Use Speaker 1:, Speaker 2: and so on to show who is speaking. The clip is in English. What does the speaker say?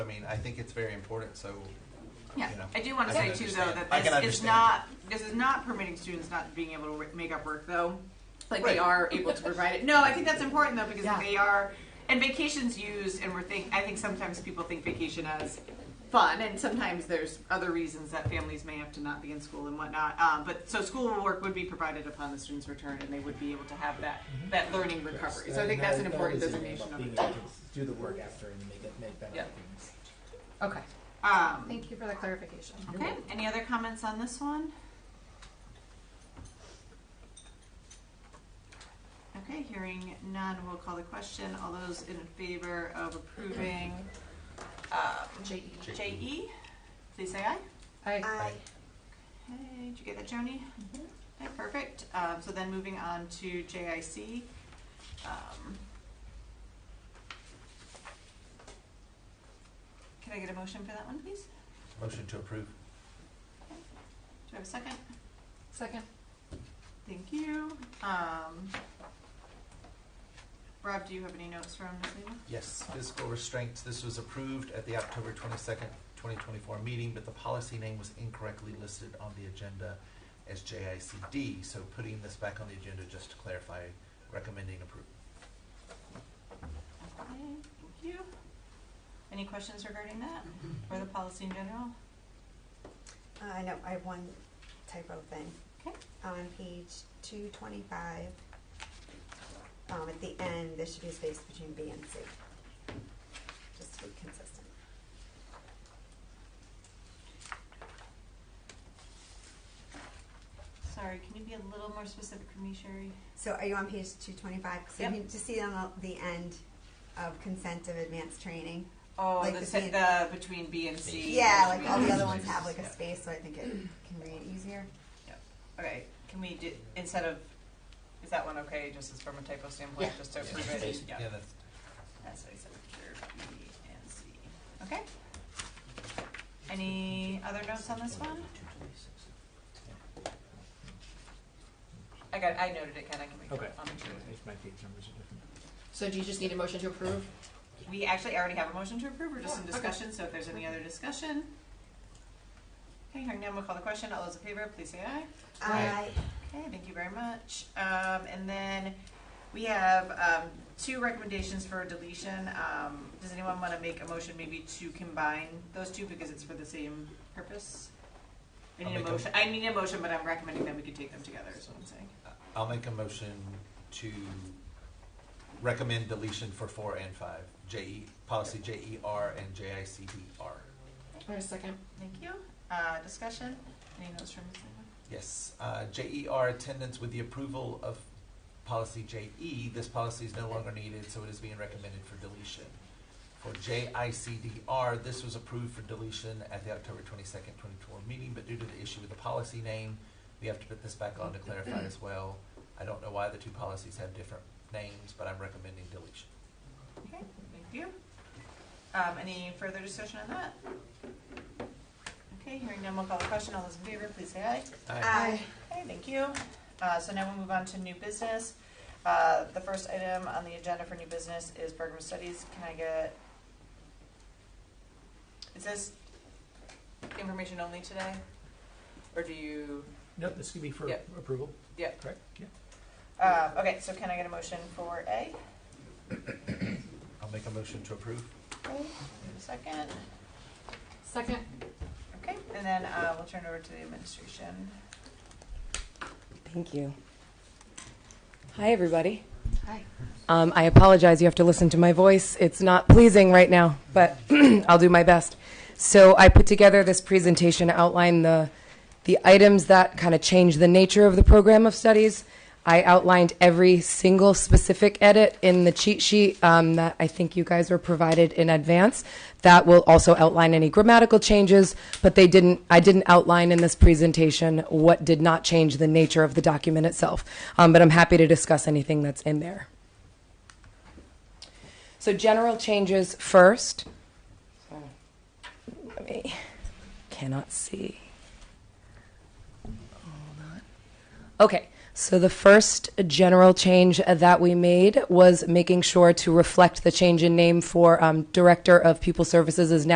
Speaker 1: I mean, I think it's very important, so.
Speaker 2: Yeah,
Speaker 1: you know,
Speaker 2: I do want to
Speaker 1: I
Speaker 2: say
Speaker 1: can
Speaker 2: too, though,
Speaker 1: understand.
Speaker 2: that
Speaker 1: I can
Speaker 2: this is
Speaker 1: understand.
Speaker 2: not, this is not permitting students not being able to re- make up work, though. Like
Speaker 1: Right.
Speaker 2: they are able to provide it. No, I think that's important though, because
Speaker 3: Yeah.
Speaker 2: they are, and vacations used, and we're think, I think sometimes people think vacation as fun, and sometimes there's other reasons that families may have to not be in school and whatnot. Um, but, so school work would be provided upon the student's return, and they would be able to have that, that learning recovery. So I think that's an important designation of
Speaker 4: Being
Speaker 2: it.
Speaker 4: able to do the work after and make it, make better
Speaker 2: Yeah.
Speaker 4: things.
Speaker 3: Okay.
Speaker 2: Um,
Speaker 3: Thank you for the clarification.
Speaker 2: Okay, any other comments on this one? Okay, hearing none, we'll call the question. All those in favor of approving um,
Speaker 3: JE.
Speaker 2: JE, please say aye.
Speaker 3: I,
Speaker 1: Aye.
Speaker 2: Okay, did you get that, Joni? Okay, perfect. Um, So then moving on to JIC. um, Can I get a motion for that one, please?
Speaker 1: Motion to approve.
Speaker 2: Do I have a second?
Speaker 3: second.
Speaker 2: Thank you. Um, Rob, do you have any notes from this meeting?
Speaker 1: Yes, physical restraints, this was approved at the October twenty-second, twenty twenty-four meeting, but the policy name was incorrectly listed on the agenda as JICD, so putting this back on the agenda just to clarify, recommending approval.
Speaker 2: Okay, thank you. Any questions regarding that or the policy in general?
Speaker 5: Uh, I know, I have one typo thing.
Speaker 2: Okay.
Speaker 5: On page two twenty-five, um, at the end, there should be a space between B and C. Just to be consistent.
Speaker 2: Sorry, can you be a little more specific for me, Sherry?
Speaker 5: So are you on page two twenty-five? So
Speaker 2: Yep.
Speaker 5: you just see on the the end of consent of advanced training?
Speaker 2: Oh,
Speaker 5: Like
Speaker 2: the,
Speaker 5: the
Speaker 2: se-
Speaker 5: B and-
Speaker 2: the between B and C.
Speaker 5: Yeah, like all the other
Speaker 1: ones
Speaker 5: ones have like a
Speaker 1: Yeah.
Speaker 5: space, so I think it can read easier.
Speaker 2: Okay, can we do, instead of, is that one okay, just as from a typo standpoint,
Speaker 3: Yeah.
Speaker 2: just to approve it?
Speaker 1: Yeah, that's,
Speaker 2: That's what I said, sure, B and C. Okay. Any other notes on this one? I got, I noted it, Ken, I can make
Speaker 4: Okay.
Speaker 2: it. I'll make sure.
Speaker 4: If my page numbers are different.
Speaker 3: So do you just need a motion to approve?
Speaker 2: We actually already have a motion to approve, we're just in
Speaker 3: Yeah, okay.
Speaker 2: discussion, so if there's any other discussion. Okay, hearing none, we'll call the question, all those in favor, please say aye.
Speaker 5: I,
Speaker 2: Okay, thank you very much. Um, and then we have, um, two recommendations for deletion. Um, does anyone wanna make a motion maybe to combine those two because it's for the same purpose? I
Speaker 1: I'll
Speaker 2: need a
Speaker 1: make a-
Speaker 2: motion, I need a motion, but I'm recommending that we could take them together, is what I'm saying.
Speaker 1: uh, I'll make a motion to recommend deletion for four and five, JE, policy JER and JICDR.
Speaker 3: Or a second?
Speaker 2: Thank you. Uh, discussion? Any notes from Ms. Lehman?
Speaker 1: Yes, uh, JER attendance with the approval of policy JE, this policy is no longer needed, so it is being recommended for deletion. For JICDR, this was approved for deletion at the October twenty-second, twenty-four meeting, but due to the issue with the policy name, we have to put this back on to clarify as well. I don't know why the two policies have different names, but I'm recommending deletion.
Speaker 2: Okay, thank you. Um, any further discussion on that? Okay, hearing none, we'll call the question. All those in favor, please say aye.
Speaker 5: I,
Speaker 2: Okay, thank you. Uh, so now we'll move on to new business. Uh, the first item on the agenda for new business is program studies. Can I get? Is this information only today? Or do you,
Speaker 4: Nope, this could be for
Speaker 2: Yeah.
Speaker 4: approval.
Speaker 2: Yeah.
Speaker 4: Correct? Yeah.
Speaker 2: um, okay, so can I get a motion for A?
Speaker 1: I'll make a motion to approve.
Speaker 2: Okay, Second,
Speaker 3: Second.
Speaker 2: okay, and then, uh, we'll turn it over to the administration.
Speaker 6: Thank you. Hi, everybody.
Speaker 3: Hi.
Speaker 6: Um, I apologize, you have to listen to my voice. It's not pleasing right now, but I'll do my best. So I put together this presentation to outline the, the items that kind of change the nature of the program of studies. I outlined every single specific edit in the cheat sheet um, that I think you guys were provided in advance. That will also outline any grammatical changes, but they didn't. I didn't outline in this presentation what did not change the nature of the document itself. Um, but I'm happy to discuss anything that's in there. So general changes first. Let me, cannot see. Hold on. Okay, so the first general change that we made was making sure to reflect the change in name for um, Director of People Services is now.